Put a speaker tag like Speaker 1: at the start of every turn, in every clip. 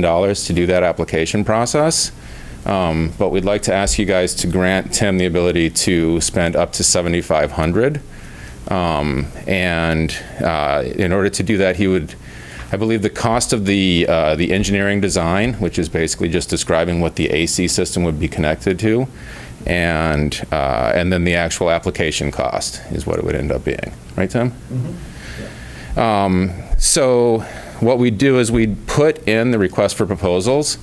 Speaker 1: $1,000 to do that application process. Um, But we'd like to ask you guys to grant Tim the ability to spend up to 7,500. Um, And uh, in order to do that, he would, I believe the cost of the, uh, the engineering design, which is basically just describing what the AC system would be connected to, and, uh, and then the actual application cost is what it would end up being. Right, Tim? So what we do is we put in the request for proposals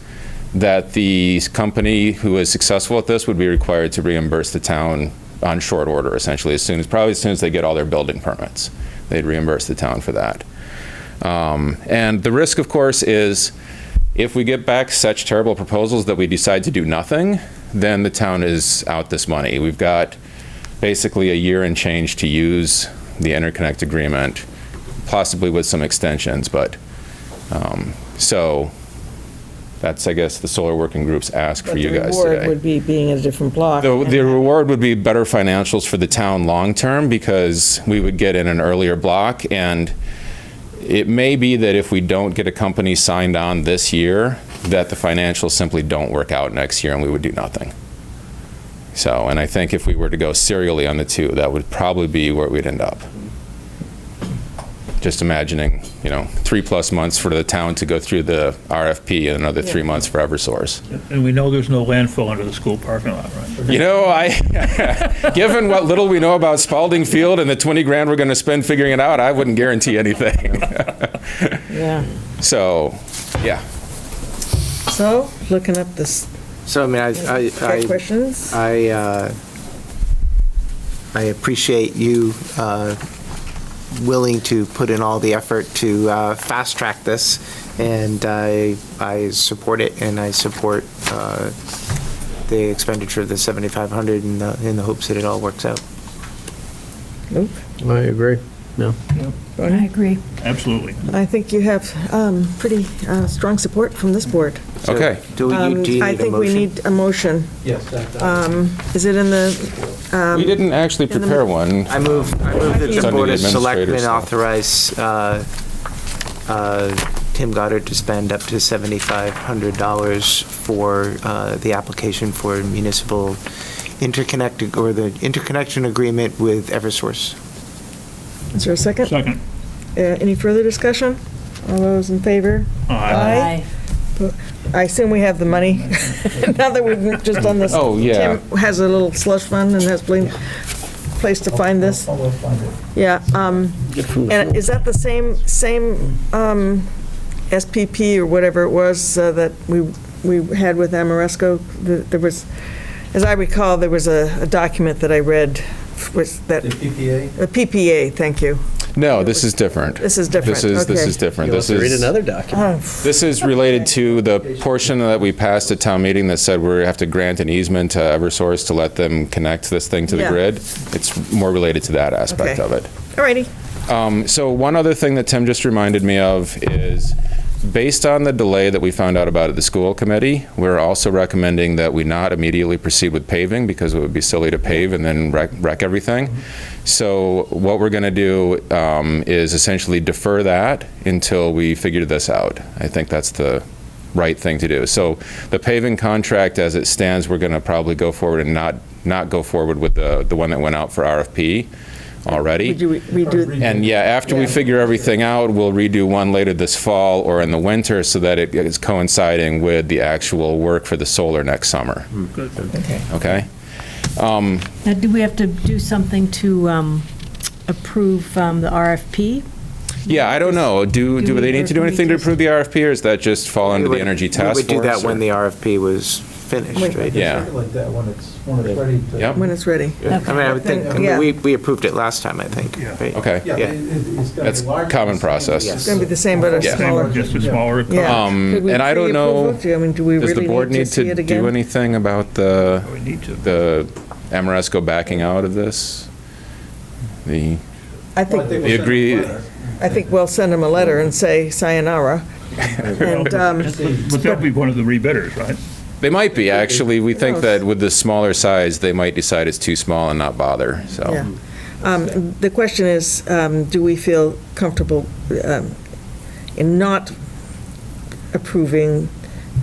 Speaker 1: that the company who is successful at this would be required to reimburse the town on short order, essentially, as soon as, probably as soon as they get all their building permits. They'd reimburse the town for that. Um, And the risk, of course, is if we get back such terrible proposals that we decide to do nothing, then the town is out this money. We've got basically a year and change to use the interconnect agreement, possibly with some extensions, but, um, so, that's, I guess, the solar working groups ask for
Speaker 2: But
Speaker 1: you guys
Speaker 2: The reward
Speaker 1: today.
Speaker 2: would be being in a different block.
Speaker 1: The,
Speaker 2: and
Speaker 1: the
Speaker 2: having-
Speaker 1: reward would be better financials for the town long-term because we would get in an earlier block. And it may be that if we don't get a company signed on this year, that the financials simply don't work out next year and we would do nothing. So, and I think if we were to go serially on the two, that would probably be where we'd end up. Just imagining, you know, three-plus months for the town to go through the RFP and another three months for Eversource.
Speaker 3: And we know there's no landfill under the school parking lot, right?
Speaker 1: You know, I, given what little we know about Spalding Field and the 20 grand we're going to spend figuring it out, I wouldn't guarantee anything.
Speaker 2: Yeah.
Speaker 1: So, yeah.
Speaker 2: So, looking up this,
Speaker 4: So, I mean, I, I-
Speaker 2: got
Speaker 4: I,
Speaker 2: questions?
Speaker 4: I, uh, I appreciate you uh, willing to put in all the effort to uh, fast-track this, and I, I support it, and I support uh, the expenditure of the 7,500 in the, in the hopes that it all works out.
Speaker 2: Luke?
Speaker 5: I agree. No.
Speaker 6: I agree.
Speaker 3: Absolutely.
Speaker 2: I think you have um, pretty uh, strong support from this board.
Speaker 4: So,
Speaker 1: Okay.
Speaker 4: Do we,
Speaker 2: Um,
Speaker 4: need- do you
Speaker 2: I
Speaker 4: need a
Speaker 2: think we
Speaker 4: motion?
Speaker 2: need a motion. Yes. Is it in the, um,
Speaker 1: We didn't actually
Speaker 2: the-
Speaker 1: prepare one.
Speaker 4: I move, I move that
Speaker 1: It's
Speaker 4: the
Speaker 1: under
Speaker 4: Board
Speaker 1: the
Speaker 4: of Selectmen
Speaker 1: administrator's stuff.
Speaker 4: authorize uh, uh, Tim Goddard to spend up to $7,500 for uh, the application for municipal interconnect, or the interconnection agreement with Eversource.
Speaker 2: is there a second? Uh,
Speaker 3: Second.
Speaker 2: Any further discussion? All those in favor?
Speaker 3: Aye.
Speaker 2: I assume we have the money, now that we've just done this.
Speaker 1: Oh, yeah.
Speaker 2: Tim has a little slush fund and has been place to find this. Yeah, um, and is that the same, same, um, SPP or whatever it was uh, that we, we had with Amoresco? Th- There was, as I recall, there was a, a document that I read was that. The PPA? The PPA, thank you.
Speaker 1: No, this is different.
Speaker 2: This is different,
Speaker 1: This is, this
Speaker 2: okay. Oh,
Speaker 1: is different.
Speaker 5: You'll have
Speaker 1: This
Speaker 5: to read
Speaker 1: is,
Speaker 5: another document.
Speaker 1: this is related to the portion that we passed at town meeting that said we have to grant an easement to Eversource to let them connect this thing to the
Speaker 2: Yeah.
Speaker 1: grid. It's more related to that aspect
Speaker 2: Okay.
Speaker 1: of it.
Speaker 2: Alrighty,
Speaker 1: Um, So one other thing that Tim just reminded me of is, based on the delay that we found out about at the school committee, we're also recommending that we not immediately proceed with paving because it would be silly to pave and then wreck, wreck everything. So what we're going to do um, is essentially defer that until we figure this out. I think that's the right thing to do. So the paving contract, as it stands, we're going to probably go forward and not, not go forward with the, the one that went out for RFP already.
Speaker 2: we do, we do,
Speaker 1: And yeah, after we figure everything out, we'll redo one later this fall or in the winter so that it is coinciding with the actual work for the solar next summer.
Speaker 3: Hmm.
Speaker 1: Okay?
Speaker 6: Now, do we have to do something to um, approve um, the RFP?
Speaker 1: Yeah, I don't know. Do,
Speaker 6: Do
Speaker 1: do
Speaker 6: we-
Speaker 1: they need to do
Speaker 6: or can we
Speaker 1: anything to
Speaker 6: just-
Speaker 1: approve the RFP or does that just fall under
Speaker 4: We
Speaker 1: the
Speaker 4: would-
Speaker 1: energy task force?
Speaker 4: We would do that
Speaker 1: or-
Speaker 4: when the RFP was finished, right?
Speaker 1: Yeah.
Speaker 7: Like that when it's, when it's ready to.
Speaker 1: Yep.
Speaker 2: when it's ready.
Speaker 4: I mean, I would think, I mean,
Speaker 2: Yeah.
Speaker 4: we, we approved it last time, I think, right?
Speaker 1: Okay.
Speaker 7: Yeah,
Speaker 4: Yeah.
Speaker 7: it- it- it's gotta be
Speaker 1: That's
Speaker 7: large,
Speaker 1: common
Speaker 7: it's gonna be
Speaker 1: process.
Speaker 7: the
Speaker 2: It's gonna be the same, but a
Speaker 1: Yeah.
Speaker 2: smaller.
Speaker 3: Just a smaller.
Speaker 2: Yeah.
Speaker 1: Um,
Speaker 2: Could we
Speaker 1: And I don't
Speaker 2: pre-approve
Speaker 1: know,
Speaker 2: it? I mean, do we
Speaker 1: does the
Speaker 2: really
Speaker 1: board need
Speaker 2: see
Speaker 1: to
Speaker 2: it
Speaker 1: do
Speaker 2: again?
Speaker 1: anything about the,
Speaker 3: Oh, We need to.
Speaker 1: the Amoresco backing out of this? The,
Speaker 2: I
Speaker 7: Well, I
Speaker 2: think,
Speaker 7: think
Speaker 1: You
Speaker 7: we'll
Speaker 1: agree-
Speaker 7: send them
Speaker 2: I think we'll send them a letter and say sayonara. And, um,
Speaker 3: But they'll be one of the rebidders, right?
Speaker 1: they might be, actually. We think
Speaker 2: knows?
Speaker 1: that with the smaller size, they might decide it's too small and not bother, so.
Speaker 2: Yeah. um, the question is, um, do we feel comfortable um, in not approving